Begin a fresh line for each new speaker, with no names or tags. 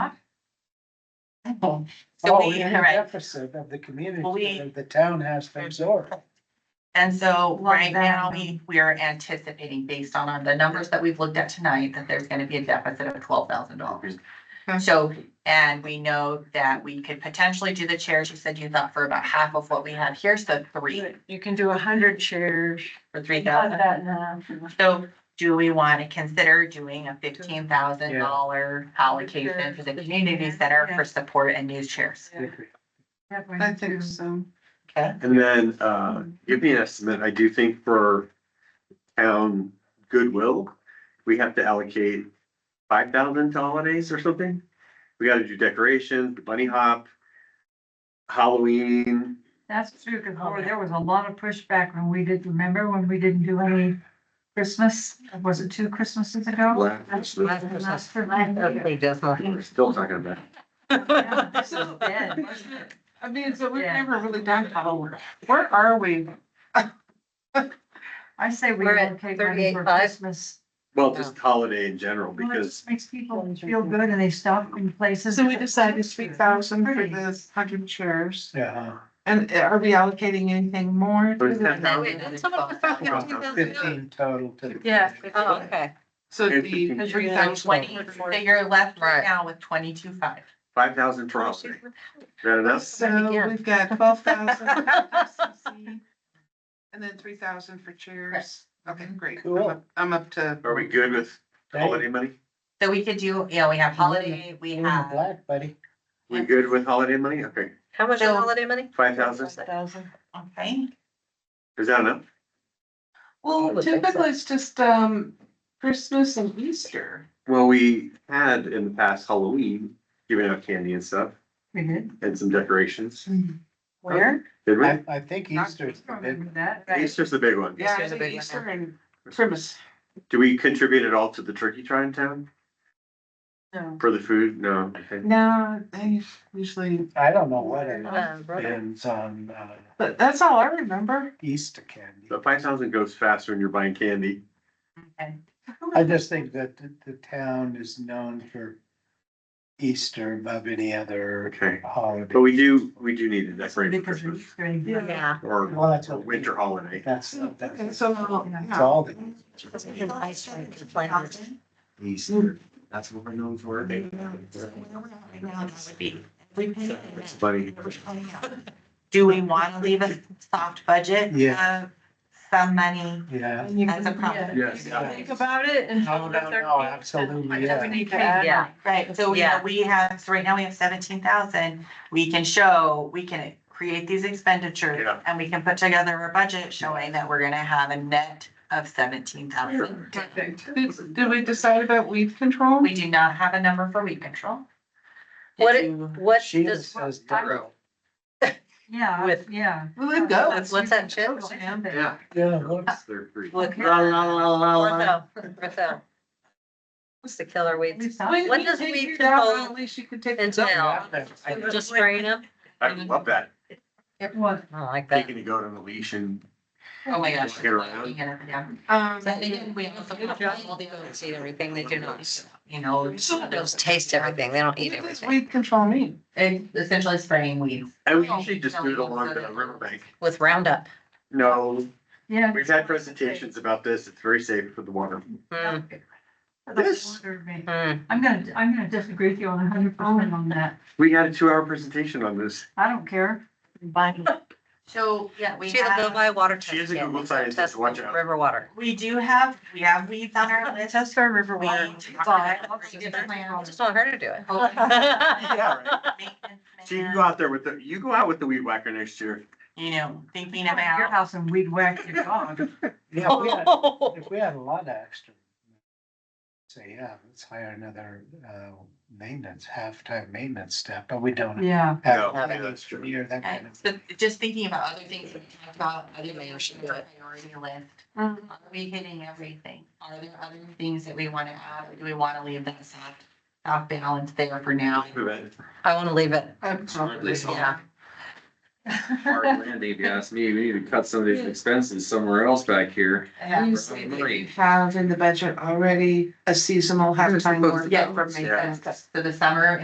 Oh,
So
we
we,
have
right,
deficit of the community,
We-
that the town has to absorb.
and so
Love
right
that.
now, we, we are anticipating based on um, the numbers that we've looked at tonight, that there's gonna be a deficit of twelve thousand dollars.
Okay.
So, and we know that we could potentially do the chairs, you said you thought for about half of what we have here, so three
You can do a hundred shares.
for three thousand. So do we want to consider doing a fifteen thousand dollar allocation for the community center for support and news chairs?
I think so.
Okay,
And then, uh, give me an estimate, I do think for town goodwill, we have to allocate five thousand to holidays or something. We gotta do decorations, the bunny hop, Halloween,
That's true, because
Oh,
there was a lot of pushback when we did, remember when we didn't do any Christmas? Was it two Christmases ago?
black, we're
Last Christmas.
still talking about. it.
I mean, so
we've
never really done Halloween. Where are we? I say we
We're at
allocate money for
38.5.
Christmas.
Well, just holiday in general,
Well, it
because
just makes people feel good and they stop in places.
So we decided three thousand for
Pretty.
the hundred chairs,
Yeah,
and uh, are we allocating anything more?
There's that now.
fifteen total to. the
Yeah.
community.
Oh, okay.
So
And
the
fifteen.
three
Twenty,
thousand.
so you're left right
Right.
now with twenty-two five.
five thousand for holiday, is that enough?
So we've got twelve thousand. And then three thousand for chairs. Okay, great. I'm
Cool.
up- I'm up to.
Are we good with holiday
Dave,
money?
So we could do, you know, we
Mm-hmm.
have holiday, we
You're in the
have,
black, buddy.
We good with holiday money? Okay,
How much
So-
in holiday money?
five thousand,
okay.
is that enough?
Well, typically it's just, um, Christmas and Easter.
Well, we had in the past Halloween, giving out candy and stuff
We did.
and some decorations.
Where?
Did we?
I, I think
Not-
Easter's
I
the
don't
big,
remember that. right.
Easter's the big one.
Yeah, I
Easter's a
think
big one,
Easter and Christmas.
Do we contribute at all to the turkey try in town
No.
for the food? No. okay.
No, I usually,
I don't know what it
Um, brother.
ends on, uh,
but that's all I remember.
Easter candy.
But five thousand goes faster when you're buying candy.
I just think that the, the town is known for Easter above any other
Okay.
holiday.
But we do, we do need to decorate for
Because of
Christmas
Easter and-
Yeah.
Yeah.
or
Well, that's
or
what-
winter holiday.
That's,
Okay,
Oh, that's,
so,
it's
yeah.
all the
That's what your ice cream is like.
Easter, that's what we're known for. It's funny.
Do we want to leave a soft budget?
Yeah.
of Some money
yeah.
And you
as a
can-
problem?
Yes.
Think about it and.
No, no, no, absolutely,
Yeah.
yeah.
Yeah.
Right, so we,
Yeah.
we have, so right now we have seventeen thousand, we can show, we can create these expenditures.
Yeah.
And we can put together a budget showing that we're gonna have a net of seventeen thousand.
Perfect. Did did we decide about weed control?
We do not have a number for weed control.
What it-
Did you-
What
She
does,
says zero.
Yeah,
With-
yeah.
Well, let go.
That's what's that, Chip?
Yeah.
Yeah, what's
They're free.
what,
La,
Ortho, ortho. What's the killer weeds? What does weed control
At least you could take.
And
it out.
now- Just spraying them?
I love that,
It was.
I like that.
taking a goat on a leash and
Oh my gosh.
Get around.
Yeah.
Um,
So again, we also have all the
They
others,
Eat everything, they do not.
you know.
Those taste everything, they don't eat
What does
everything.
weed control mean?
It's essentially spraying weeds.
and we usually just do it along the riverbank.
With Roundup.
No,
Yeah.
we've had presentations about this. It's very safe for the water.
Mm,
This-
mm.
I'm gonna, I'm gonna disagree with you on hundred percent on that.
We had a two-hour presentation on this.
I don't care.
So, yeah, we
She'll go
have,
buy water test.
She is a
kit.
Google scientist,
Test
watch out.
River water.
we do have, we have weeds on our list.
Test for river
We
water.
but we did plan.
I just want her to do it.
Oh. right. So you go out there with the, you go out with the weed whacker next year.
You know, thinking
Your
about,
house and weed whack your dog.
Yeah, we had, if we had a lot of extra. Say, yeah, let's hire another, uh, maintenance, half-time maintenance staff, but we don't
Yeah.
No,
have
yeah,
any
that's true.
engineer, that
okay,
kind of.
uh, so just thinking about other things we talked about, other mayors should do a priority list. Are we hitting everything? Are there other things that we want to add? or Do we want to leave that soft, soft balance there for now?
I want to leave it.
Absolutely.
Yeah.
Mark Landy, if you ask me, we need to cut some of these expenses somewhere else back here.
We have in the budget already a seasonal halftime work
Yeah.
for maintenance.
So the summer